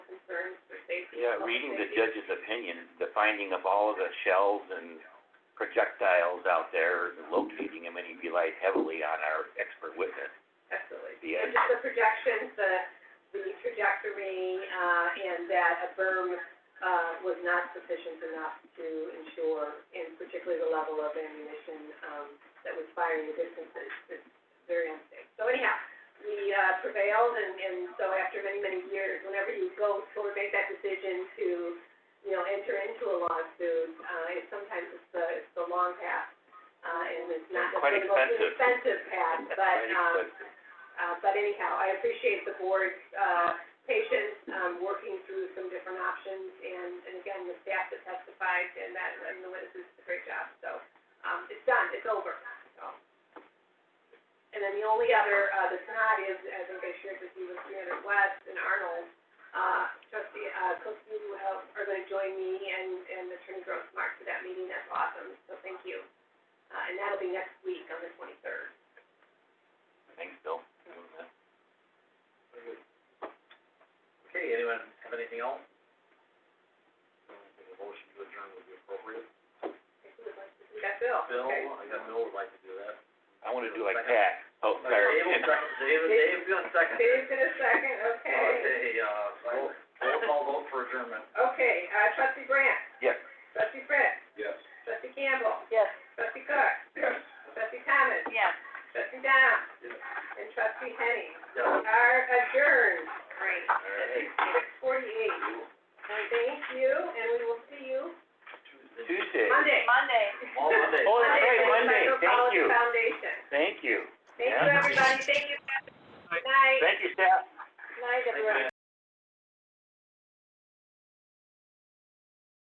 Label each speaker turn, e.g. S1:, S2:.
S1: Yeah, reading the judge's opinion, the finding of all of the shells and projectiles out there, locating them, and he relied heavily on our expert witness.
S2: Absolutely.
S1: Yeah.
S2: And just the projections, the, the trajectory, uh, and that a berm, uh, was not sufficient enough to ensure, and particularly the level of ammunition, um, that was firing the distances, is very unsafe. So anyhow, we, uh, prevailed, and, and so after many, many years, whenever you go toward, make that decision to, you know, enter into a lawsuit, uh, it's sometimes it's the, it's the long path, uh, and it's not
S1: Quite
S2: necessarily the most
S1: expensive.
S2: expensive path, but,
S1: Very
S2: um,
S1: expensive.
S2: uh, but anyhow, I appreciate the board's, uh, patience, um, working through some different options, and, and again, the staff that testified, and that, and the witnesses did a great job, so, um, it's done, it's over, so. And then the only other, uh, that's not is, as I shared with you, was three hundred West and Arnold, uh, trustee, uh, Cook, you have, are gonna join me and, and Attorney Grossmark for that meeting, that's awesome, so thank you. Uh, and that'll be next week on the twenty-third.
S1: Thanks, Bill.
S3: Okay, anyone have anything else? A motion to adjourn would be appropriate.
S2: That's Bill.
S3: Bill,
S2: Okay.
S3: I got Bill would like to do that.
S1: I wanna do like Pat. Oh, sorry.
S3: Dave will second, Dave, Dave, you want second?
S2: Dave's in a second, okay.
S3: Okay, uh, roll, roll call vote for adjournment.
S2: Okay, uh, trustee Brandt,
S1: Yes.
S2: trustee Fritz,
S3: Yes.
S2: trustee Campbell. Yes. Trustee Cook. Yes. Trustee Thomas. Yes. Trustee Down.
S3: Yes.
S2: And trustee Henny
S3: Yeah.
S2: are adjourned. Great.
S3: All right.
S2: Six forty-eight. And thank you, and we will see you
S1: Tuesday.
S2: Monday. Monday.
S3: All Monday.
S1: Oh, that's right, Monday. Thank
S2: Micropolitan
S1: you.
S2: Foundation.
S1: Thank you.
S2: Thank
S1: Yeah.
S2: you, everybody, thank you. Good Night,
S1: Thank you, staff.
S2: night, everyone.